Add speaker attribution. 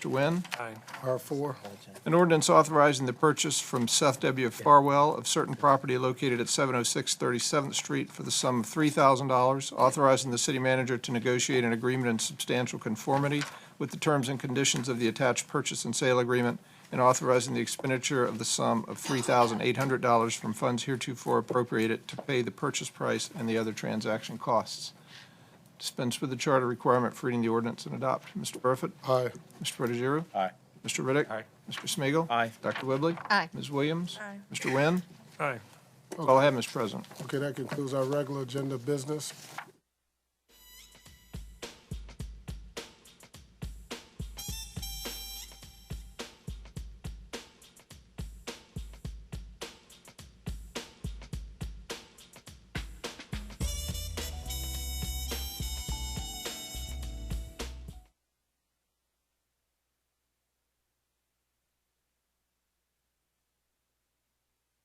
Speaker 1: Mr. Wynn?
Speaker 2: Aye.
Speaker 3: R4,
Speaker 1: An ordinance authorizing the purchase from Seth W. Farwell of certain property located at 706 37th Street for the sum of $3,000, authorizing the city manager to negotiate an agreement in substantial conformity with the terms and conditions of the attached purchase and sale agreement, and authorizing the expenditure of the sum of $3,800 from funds heretofore appropriated to pay the purchase price and the other transaction costs. Dispense with the charter requirement for reading the ordinance and adopt. Mr. Burford?
Speaker 3: aye,
Speaker 1: Mr. Protogiru?
Speaker 4: Aye.
Speaker 1: Mr. Riddick.
Speaker 2: Aye.
Speaker 1: Mr. Smigiel,
Speaker 4: Aye.
Speaker 1: Dr. Whibley.
Speaker 5: Aye.
Speaker 1: Ms. Williams.
Speaker 5: Aye.
Speaker 1: Mr. Wynn.
Speaker 2: Aye.
Speaker 1: All I have, Mr. President.
Speaker 3: okay, that concludes our regular agenda business.